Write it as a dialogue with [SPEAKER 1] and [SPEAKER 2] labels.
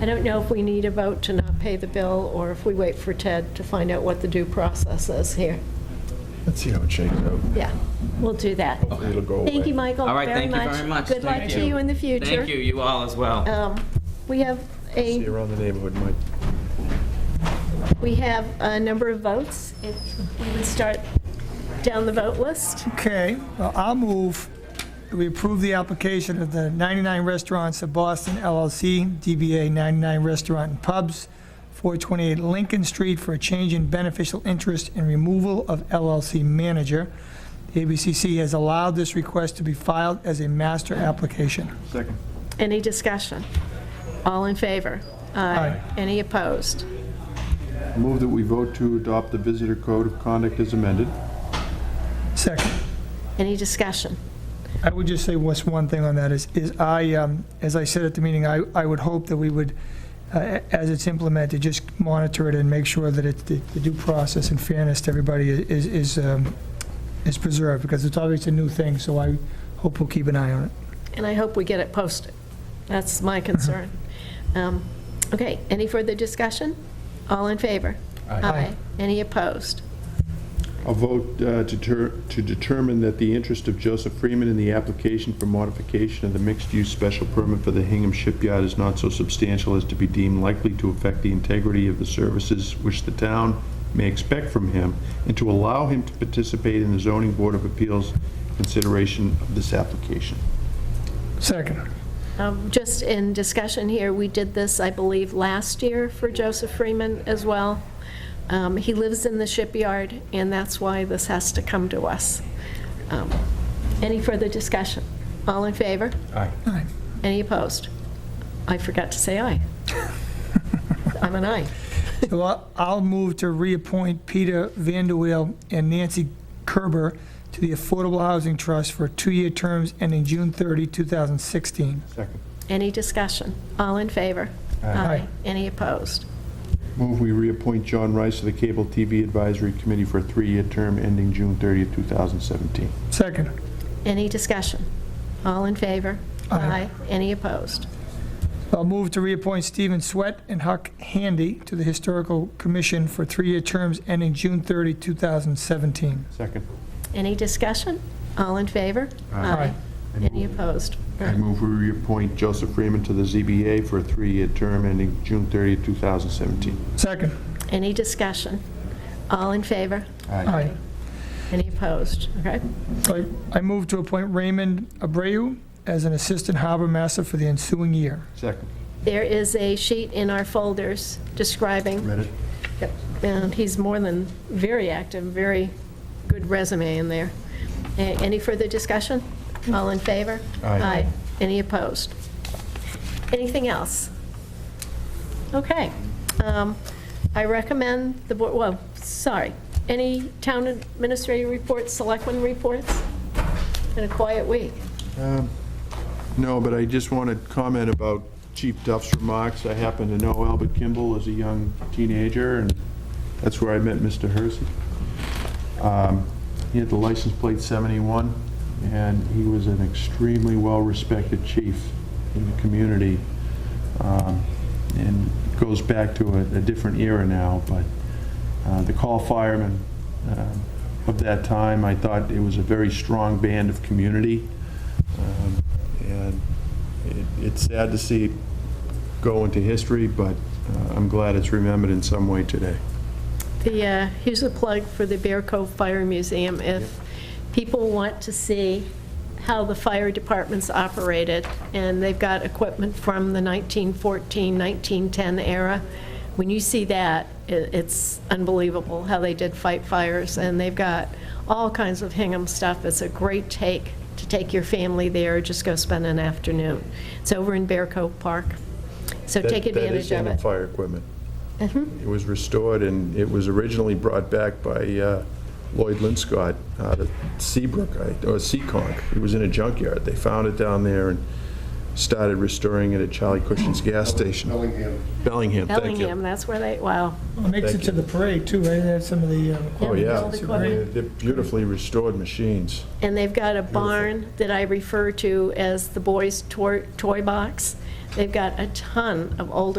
[SPEAKER 1] I don't know if we need a vote to not pay the bill, or if we wait for Ted to find out what the due process is here.
[SPEAKER 2] Let's see how it shakes out.
[SPEAKER 1] Yeah, we'll do that.
[SPEAKER 2] Hopefully it'll go away.
[SPEAKER 1] Thank you, Michael,
[SPEAKER 3] All right,
[SPEAKER 1] very
[SPEAKER 3] thank you
[SPEAKER 1] much.
[SPEAKER 3] very much.
[SPEAKER 1] Good luck
[SPEAKER 3] Thank
[SPEAKER 1] to you in the future.
[SPEAKER 3] Thank you, you all as well.
[SPEAKER 1] Um, We have
[SPEAKER 2] See
[SPEAKER 1] a,
[SPEAKER 2] you around the neighborhood, Mike.
[SPEAKER 1] we have a number of votes. If we would start down the vote list.
[SPEAKER 4] Okay, well, I'll move, that we approve the application of the 99 Restaurants of Boston LLC, DBA 99 Restaurant and Pubs, 428 Lincoln Street for a change in beneficial interest and removal of LLC manager. The ABCC has allowed this request to be filed as a master application.
[SPEAKER 2] Second.
[SPEAKER 1] Any discussion? All in favor?
[SPEAKER 4] Aye.
[SPEAKER 1] Any opposed?
[SPEAKER 5] Move that we vote to adopt the Visitor Code of Conduct as amended.
[SPEAKER 4] Second,
[SPEAKER 1] Any discussion?
[SPEAKER 4] I would just say what's one thing on that is, is I, um, as I said at the meeting, I, I would hope that we would, uh, as it's implemented, just monitor it and make sure that it, the the due process and fairness to everybody is, is, um, is preserved, because it's obviously a new thing, so I hope we'll keep an eye on it.
[SPEAKER 1] And I hope we get it posted. That's my concern. Um, Okay, any further discussion? All in favor? Any opposed?
[SPEAKER 5] A vote uh, to ter- to determine that the interest of Joseph Freeman in the application for modification of the mixed-use special permit for the Hingham Shipyard is not so substantial as to be deemed likely to affect the integrity of the services which the town may expect from him, and to allow him to participate in the zoning board of appeals consideration of this application.
[SPEAKER 4] Second.
[SPEAKER 1] Um, Just in discussion here, we did this, I believe, last year for Joseph Freeman as well. Um, He lives in the shipyard, and that's why this has to come to us. Um, Any further discussion? All in favor?
[SPEAKER 2] Aye.
[SPEAKER 1] Any opposed? I forgot to say aye. I'm an aye.
[SPEAKER 4] So I'll- I'll move to reappoint Peter Vanderweel and Nancy Kerber to the Affordable Housing Trust for two-year terms ending June 30, 2016.
[SPEAKER 5] Second.
[SPEAKER 1] Any discussion? All in favor?
[SPEAKER 4] Aye.
[SPEAKER 1] Any opposed?
[SPEAKER 5] Move we reappoint John Rice to the Cable TV Advisory Committee for a three-year term ending June 30th, 2017.
[SPEAKER 4] Second.
[SPEAKER 1] Any discussion? All in favor?
[SPEAKER 4] Aye.
[SPEAKER 1] Any opposed?
[SPEAKER 4] I'll move to reappoint Stephen Swett and Huck Handy to the Historical Commission for three-year terms ending June 30, 2017.
[SPEAKER 5] Second.
[SPEAKER 1] Any discussion? All in favor?
[SPEAKER 4] Aye.
[SPEAKER 1] Any opposed?
[SPEAKER 5] I move we reappoint Joseph Freeman to the ZBA for a three-year term ending June 30th, 2017.
[SPEAKER 4] Second.
[SPEAKER 1] Any discussion? All in favor?
[SPEAKER 4] Aye.
[SPEAKER 1] Any opposed? Okay.
[SPEAKER 4] So I I move to appoint Raymond Abreu as an Assistant Harbor Master for the ensuing year.
[SPEAKER 5] Second.
[SPEAKER 1] There is a sheet in our folders describing,
[SPEAKER 5] Read it?
[SPEAKER 1] Yep. and he's more than very active, very good resume in there. A- Any further discussion? All in favor?
[SPEAKER 5] Aye.
[SPEAKER 1] Any opposed? Anything else? Okay. Um, I recommend the board, well, sorry, any town administrative reports, selectmen reports? In a quiet week.
[SPEAKER 5] No, but I just want to comment about Chief Duff's remarks. I happen to know Albert Kimball as a young teenager, and that's where I met Mr. Hersey. Um, He had the license plate 71, and he was an extremely well-respected chief in the community. Um, And it goes back to a a different era now, but uh, the call firemen um, of that time, I thought it was a very strong band of community. Um, And it- it's sad to see it go into history, but uh, I'm glad it's remembered in some way today.
[SPEAKER 1] The, uh, here's a plug for the Bear Cove Fire Museum. If people want to see how the fire departments operated, and they've got equipment from the 1914, 1910 era, when you see that, i- it's unbelievable how they did fight fires, and they've got all kinds of Hingham stuff. It's a great take, to take your family there, just go spend an afternoon. It's over in Bear Cove Park, so take
[SPEAKER 5] That-
[SPEAKER 1] advantage
[SPEAKER 5] That is
[SPEAKER 1] of
[SPEAKER 5] Hingham
[SPEAKER 1] it. Mm-hmm.
[SPEAKER 5] Fire Equipment. It was restored, and it was originally brought back by uh, Lloyd Linscott out of Seabrook, I- or Seaconk. It was in a junkyard. They found it down there and started restoring it at Charlie Cushing's gas station. Bellingham. Bellingham, thank you.
[SPEAKER 1] Bellingham, that's where they, wow.
[SPEAKER 4] Well, Makes it to the parade, too, right? That's some of the... uh,
[SPEAKER 5] Oh, yeah.
[SPEAKER 1] All the equipment.
[SPEAKER 5] They're beautifully restored machines.
[SPEAKER 1] And they've got a barn that I refer to as the boys' toy toy box. They've got a ton of old